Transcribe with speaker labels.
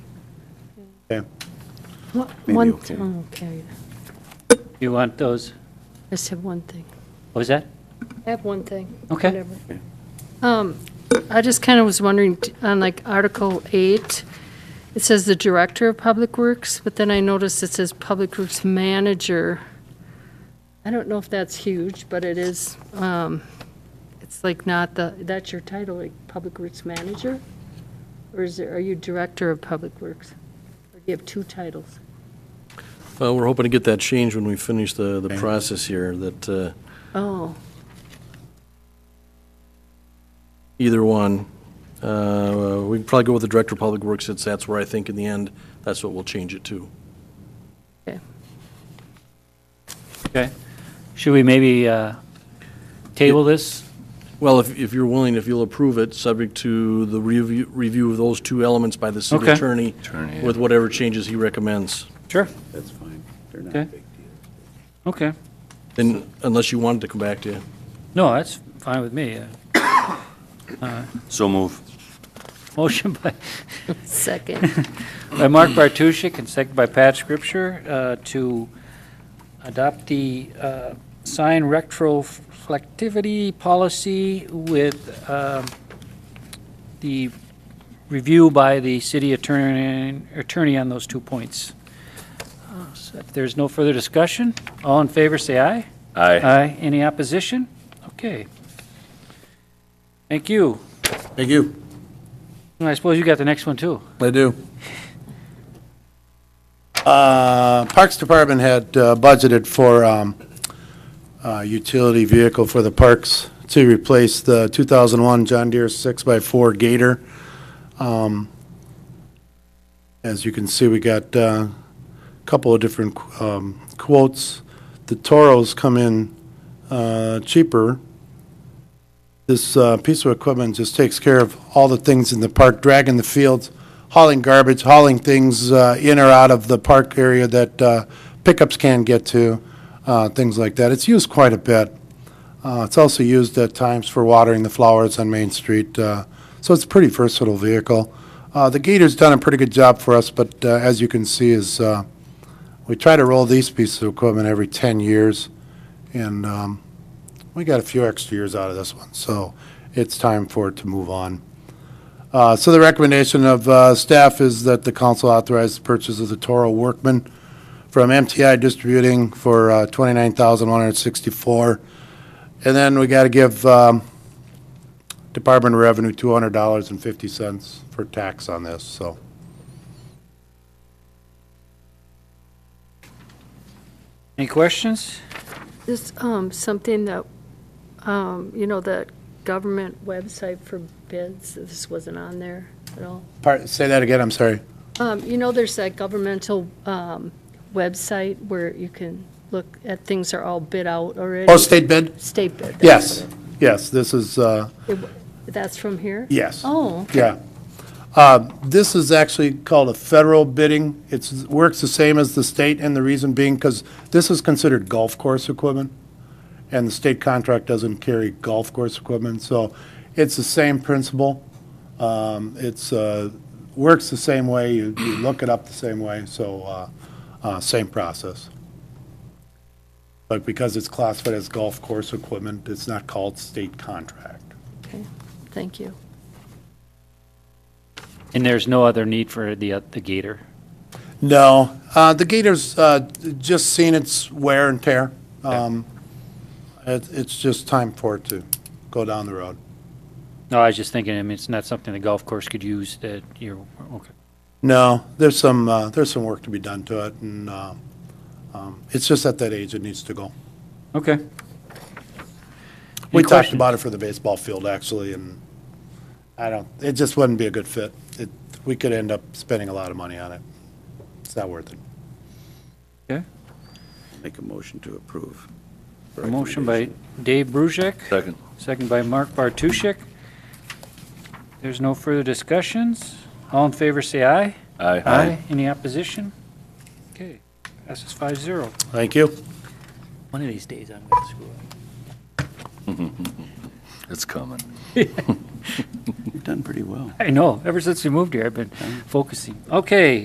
Speaker 1: Okay.
Speaker 2: What-
Speaker 3: Maybe
Speaker 2: One,
Speaker 3: okay.
Speaker 2: oh, okay.
Speaker 4: You want those,
Speaker 2: I just have one thing.
Speaker 4: what was that?
Speaker 2: I have one thing.
Speaker 4: Okay.
Speaker 2: Whatever. Um, I just kind of was wondering, t- on like Article 8, it says the Director of Public Works, but then I noticed it says Public Works Manager. I don't know if that's huge, but it is, um, it's like not the, that's your title, like Public Works Manager? Or is there, are you Director of Public Works? Or do you have two titles?
Speaker 5: Well, we're hoping to get that change when we finish the, the process here, that uh,
Speaker 2: Oh,
Speaker 5: either one, uh, we'd probably go with the Director of Public Works, since that's where I think in the end, that's what we'll change it to.
Speaker 2: okay.
Speaker 4: Okay. Should we maybe uh, table this?
Speaker 5: Well, if, if you're willing, if you'll approve it, subject to the review, review of those two elements by the city
Speaker 4: Okay.
Speaker 5: attorney
Speaker 3: Attorney, yeah.
Speaker 5: with whatever changes he recommends.
Speaker 4: Sure.
Speaker 3: That's fine. They're not
Speaker 4: Okay.
Speaker 3: big deals.
Speaker 4: Okay.
Speaker 5: Then, unless you wanted to come back to you.
Speaker 4: No, that's fine with me. Uh,
Speaker 3: So move.
Speaker 4: Motion by,
Speaker 2: Second.
Speaker 4: by Mark Bartuszczyk and second by Pat Scripture uh, to adopt the uh, sign retroflectivity policy with um, the review by the city attorney, attorney on those two points. Uh, so If there's no further discussion, all in favor, say aye.
Speaker 3: Aye.
Speaker 4: Aye. Any opposition? Okay. Thank you.
Speaker 5: Thank you.
Speaker 4: And I suppose you got the next one, too.
Speaker 5: I do.
Speaker 1: Uh, Parks Department had uh, budgeted for um, a utility vehicle for the parks to replace the 2001 John Deere 6x4 Gator. Um, As you can see, we got uh, a couple of different um, quotes. The Toros come in uh, cheaper. This uh, piece of equipment just takes care of all the things in the park, dragging the fields, hauling garbage, hauling things uh, in or out of the park area that uh, pickups can get to, uh, things like that. It's used quite a bit. Uh, It's also used at times for watering the flowers on Main Street, uh, so it's a pretty versatile vehicle. Uh, The Gator's done a pretty good job for us, but uh, as you can see is, uh, we try to roll these pieces of equipment every 10 years, and um, we got a few extra years out of this one, so it's time for it to move on. Uh, So the recommendation of uh, staff is that the council authorize the purchase of the Toro Workman from MTI Distributing for uh, $29,164. And then we got to give um, Department of Revenue $200.50 for tax on this, so.
Speaker 4: Any questions?
Speaker 2: This, um, something that, um, you know, that government website for bids, this wasn't on there at all.
Speaker 1: Part- Say that again, I'm sorry.
Speaker 2: Um, you know, there's that governmental, um, website where you can look at things are all bid out already.
Speaker 1: Oh, state bid?
Speaker 2: State bid. that's
Speaker 1: Yes, yes, this is, uh,
Speaker 2: it. That's from here?
Speaker 1: yes.
Speaker 2: Oh,
Speaker 1: Yeah. Uh, This is actually called a federal bidding. It's, works the same as the state, and the reason being, because this is considered golf course equipment, and the state contract doesn't carry golf course equipment, so it's the same principle. Um, It's, uh, works the same way, you you look it up the same way, so, uh, uh, same process. But because it's classified as golf course equipment, it's not called state contract.
Speaker 2: okay, thank you.
Speaker 4: And there's no other need for the, uh, the gator?
Speaker 1: No, uh, the Gators uh, just seen its wear and tear. Um, it, it's just time for it to go down the road.
Speaker 4: No, I was just thinking, I mean, it's not something the golf course could use that you're, okay.
Speaker 1: No, there's some uh, there's some work to be done to it, and uh, um, it's just at that age it needs to go.
Speaker 4: Okay.
Speaker 1: We
Speaker 4: Any
Speaker 1: talked
Speaker 4: questions?
Speaker 1: about it for the baseball field actually, and I don't. It just wouldn't be a good fit. It, we could end up spending a lot of money on it. It's not worth it.
Speaker 4: Okay.
Speaker 3: Make a motion to approve.
Speaker 4: A motion by Dave Brusick,
Speaker 3: Second.
Speaker 4: second by Mark Bartuszczyk. There's no further discussions. All in favor, say aye. Any opposition? Okay, passes five zero.
Speaker 1: Thank you.
Speaker 4: One of these days, I'm going to screw up.
Speaker 3: It's coming. You've done pretty well.
Speaker 4: I know, ever since we moved here, I've been focusing. Okay,